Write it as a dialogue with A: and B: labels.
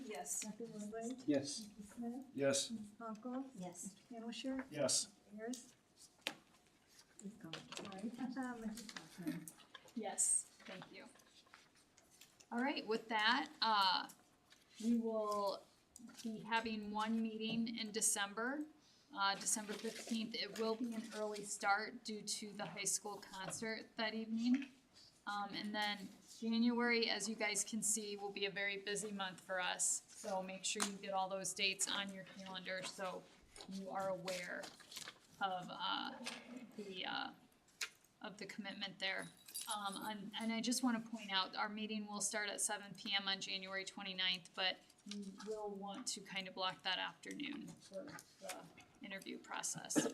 A: Yes.
B: Dr. Woodward,
C: Yes.
B: Mrs. Smith,
C: Yes.
B: Ms. Conkle,
A: Yes.
B: Hamilshire,
C: Yes.
B: Ayers. He's gone, sorry. Mrs. Cochran.
D: Yes, thank you. All right, with that, uh, we will be having one meeting in December. Uh, December fifteenth, it will be an early start due to the high school concert that evening. Um, and then January, as you guys can see, will be a very busy month for us. So make sure you get all those dates on your calendar so you are aware of, uh, the, uh, of the commitment there. Um, and, and I just wanna point out, our meeting will start at seven PM on January 29th, but you will want to kind of block that afternoon for the interview process.